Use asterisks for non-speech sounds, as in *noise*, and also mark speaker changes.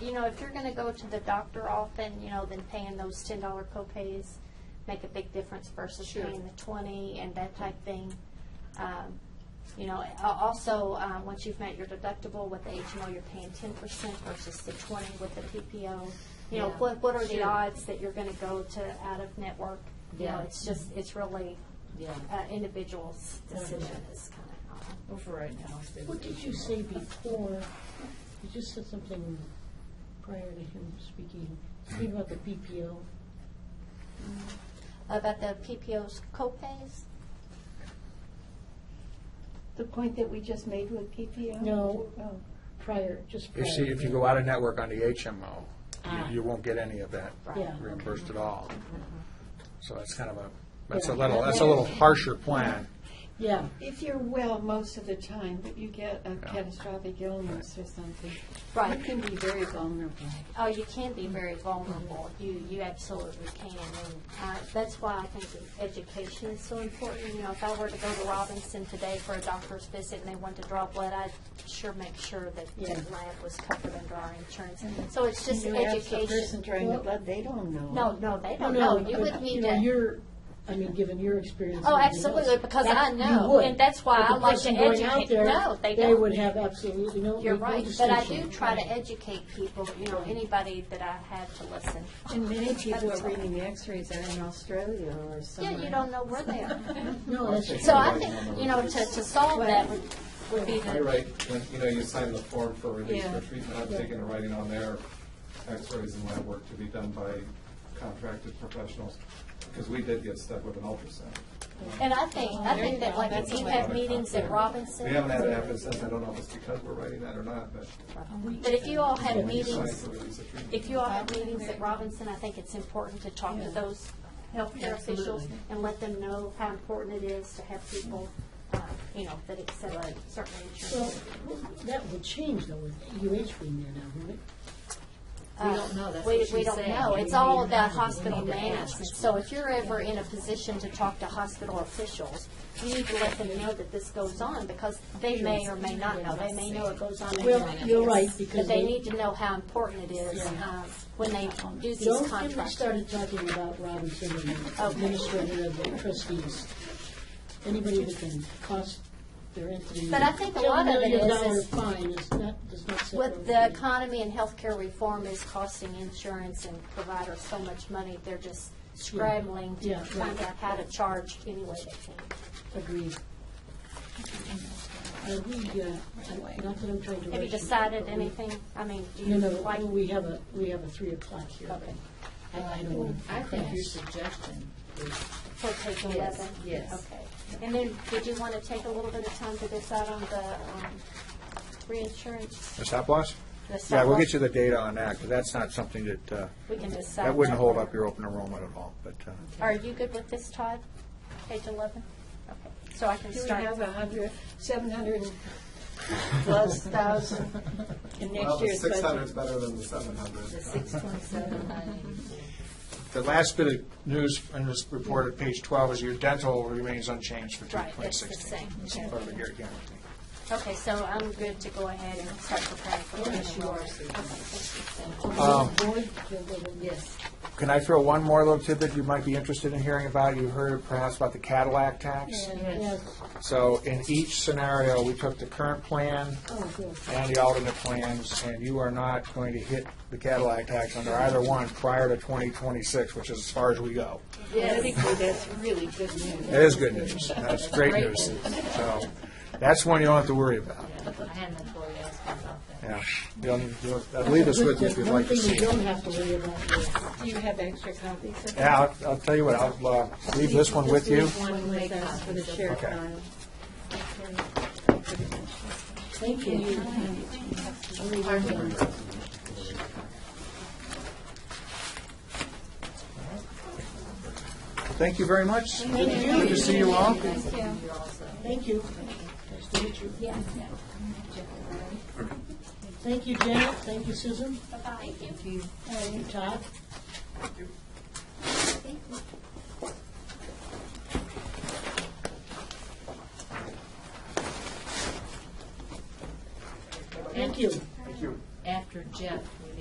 Speaker 1: you know, if you're gonna go to the doctor often, you know, then paying those ten dollar copays make a big difference versus
Speaker 2: Sure.
Speaker 1: paying the twenty and that type thing. Um, You know, a- also, um, once you've met your deductible with the HMO, you're paying ten percent versus the twenty with the PPO. You know,
Speaker 2: Yeah.
Speaker 1: what, what are the
Speaker 2: Sure.
Speaker 1: odds that you're gonna go to out of network? You know,
Speaker 2: Yeah.
Speaker 1: it's just, it's really
Speaker 2: Yeah,
Speaker 1: uh, individual's decision is kind of how.
Speaker 2: well, for right now. it's been-
Speaker 3: What did you say before? You just said something prior to him speaking, something about the PPO.
Speaker 1: About the PPO's copays?
Speaker 4: The point that we just made with PPO?
Speaker 3: No.
Speaker 4: Oh.
Speaker 3: Prior, just prior.
Speaker 5: You see, if you go out of network on the HMO,
Speaker 2: Ah.
Speaker 5: you- you won't get any of that
Speaker 3: Yeah.
Speaker 1: Mm-hmm.
Speaker 5: reimbursed at all. So that's kind of a, that's a
Speaker 3: Yeah.
Speaker 5: little, that's a little harsher plan.
Speaker 3: Yeah,
Speaker 4: If you're well most of the time, but you get a catastrophic illness or something, you
Speaker 1: Right.
Speaker 4: can be very vulnerable.
Speaker 1: Oh, you can be very vulnerable. You, you absolutely can. And uh, that's why I think that education is so important. You know, if I were to go to Robinson today for a doctor's visit and they wanted to draw blood, I'd sure make sure that the
Speaker 3: Yeah.
Speaker 1: lab was covered under our insurance. So it's just
Speaker 4: You ask the person
Speaker 1: education.
Speaker 4: drawing the
Speaker 3: Well-
Speaker 4: blood, they don't know.
Speaker 1: No, no, they
Speaker 3: no,
Speaker 1: don't know.
Speaker 3: no,
Speaker 1: Oh, You
Speaker 3: but,
Speaker 1: would
Speaker 3: you
Speaker 1: need
Speaker 3: know,
Speaker 1: to.
Speaker 3: your, I mean, given your experience.
Speaker 1: Oh,
Speaker 3: and everything
Speaker 1: absolutely,
Speaker 3: else,
Speaker 1: because
Speaker 3: that-
Speaker 1: I
Speaker 3: you
Speaker 1: know,
Speaker 3: would.
Speaker 1: and that's why
Speaker 3: But the
Speaker 1: I like
Speaker 3: person
Speaker 1: to
Speaker 3: going out
Speaker 1: educate-
Speaker 3: there,
Speaker 1: no, they don't.
Speaker 3: would have absolutely no.
Speaker 1: You're
Speaker 3: no
Speaker 1: right, but I do
Speaker 3: distinction.
Speaker 1: try to educate people, you know, anybody that I have to listen.
Speaker 4: And many people
Speaker 1: That's
Speaker 4: are
Speaker 1: all.
Speaker 4: reading the x-rays are in Australia or
Speaker 1: Yeah,
Speaker 4: somewhere.
Speaker 1: you don't know where they are.
Speaker 6: *laughs*
Speaker 3: No, that's.
Speaker 1: So I think, you know, to, to solve that would, would be
Speaker 6: You're
Speaker 1: the,
Speaker 6: right, when, you know, you sign the form for release
Speaker 4: Yeah.
Speaker 6: for treatment, I'm taking a writing on there, x-rays and lab work to be done by contracted professionals, because we did get stuck with an ultrasound.
Speaker 1: and I think, I think that like if
Speaker 4: That's
Speaker 1: you
Speaker 4: a
Speaker 1: have
Speaker 6: lot.
Speaker 1: meetings at Robinson,
Speaker 6: We haven't had it happen since, I don't know if it's because we're writing that or not, but
Speaker 1: but if you all have
Speaker 6: when you sign
Speaker 1: meetings,
Speaker 6: for release of treatment.
Speaker 1: if you all have meetings at Robinson, I think it's important to talk to those healthcare officials and let them know how important it is to have people, uh, you know, that accept certain
Speaker 3: Well,
Speaker 1: insurance.
Speaker 3: that would change though with UH being there now, wouldn't it?
Speaker 1: We
Speaker 2: don't know. That's
Speaker 1: We,
Speaker 2: what
Speaker 1: we
Speaker 2: she's
Speaker 1: don't
Speaker 2: saying.
Speaker 1: know.
Speaker 2: We
Speaker 1: It's all
Speaker 2: need-
Speaker 1: about
Speaker 2: we
Speaker 1: hospital
Speaker 2: need to ask.
Speaker 1: management. So if you're ever in a position to talk to hospital officials, you need to let them know that this goes on because they may or may not know. They may know it goes on. and
Speaker 3: Well,
Speaker 1: they may not.
Speaker 3: you're right,
Speaker 1: But
Speaker 3: because
Speaker 1: they
Speaker 3: they-
Speaker 1: need to know how important it is um, when they do
Speaker 3: The
Speaker 1: these
Speaker 3: only time we
Speaker 1: contracts.
Speaker 3: started talking about Robinson and the administrator of the trustees, anybody that can cost their entity.
Speaker 1: But I think a lot of it
Speaker 3: Ten
Speaker 1: is-
Speaker 3: million dollar fine is not, does not set.
Speaker 1: With the economy and healthcare reform is costing insurance and providers so much money, they're just scrambling to
Speaker 3: Yeah, right.
Speaker 1: find out how to charge any way they can.
Speaker 3: Agreed. Are we, uh, I- not that I'm trying to.
Speaker 1: Have you
Speaker 3: rush
Speaker 1: decided
Speaker 3: but we-
Speaker 1: anything? I mean, do you
Speaker 3: No, no,
Speaker 1: like?
Speaker 3: no, we have a, we have a three o'clock here.
Speaker 1: Okay.
Speaker 3: I I don't want to.
Speaker 2: I think your suggestion is
Speaker 1: For page
Speaker 2: Yes,
Speaker 1: eleven?
Speaker 2: yes.
Speaker 1: Okay. And then, did you want to take a little bit of time to decide on the um, reinsurance?
Speaker 5: The stop loss?
Speaker 1: the
Speaker 5: Yeah,
Speaker 1: stop
Speaker 5: we'll
Speaker 1: loss?
Speaker 5: get you the data on that, because that's not something that, uh,
Speaker 1: We can decide.
Speaker 5: that wouldn't
Speaker 1: that
Speaker 5: hold
Speaker 1: later.
Speaker 5: up your open enrollment at all, but, uh,
Speaker 1: Are you good with this, Todd? Page eleven? Okay. So I can
Speaker 4: Do we
Speaker 1: start.
Speaker 4: have a hundred, seven hundred plus thousand in
Speaker 6: Well,
Speaker 4: next
Speaker 6: the
Speaker 4: year's budget?
Speaker 6: six hundred's better than the seven hundred.
Speaker 2: six twenty-seven ninety.
Speaker 5: the last bit of news in this report at page 12 is your dental remains unchanged for
Speaker 1: Right, it's the
Speaker 5: 2016.
Speaker 1: same.
Speaker 5: It's part of the Garrett County thing.
Speaker 1: Okay, so I'm good to go ahead and start preparing for this yours.
Speaker 3: Board, you'll go to-
Speaker 2: Yes.
Speaker 5: Can I throw one more little tidbit you might be interested in hearing about? You heard perhaps about the Cadillac tax?
Speaker 3: Yes,
Speaker 5: So in each scenario, we took the current plan
Speaker 3: oh, good.
Speaker 5: and the alternate plans, and you are not going to hit the Cadillac tax under either one prior to 2026, which is as far as we go.
Speaker 4: Politically, that's really good news.
Speaker 5: That is good news. That's great news. So that's one you don't have to worry about.
Speaker 2: I had an employee ask me about that.
Speaker 5: Yeah. You'll- you'll- I'll leave this with you if you'd like to see
Speaker 3: One thing you
Speaker 5: it.
Speaker 3: don't have to worry about is
Speaker 4: Do you have extra copies of that?
Speaker 5: Yeah, I'll- I'll tell you what, I'll uh, leave this one with you.
Speaker 4: Just leave one with us for the share
Speaker 5: Okay.
Speaker 4: file.
Speaker 3: Thank you.
Speaker 5: Thank you very much. Good to see you all.
Speaker 3: Thank you. Nice to meet you. Thank you, Janet. Thank you, Susan.
Speaker 2: Thank you.
Speaker 3: Thank you, Todd. Thank you.
Speaker 2: After Jeff,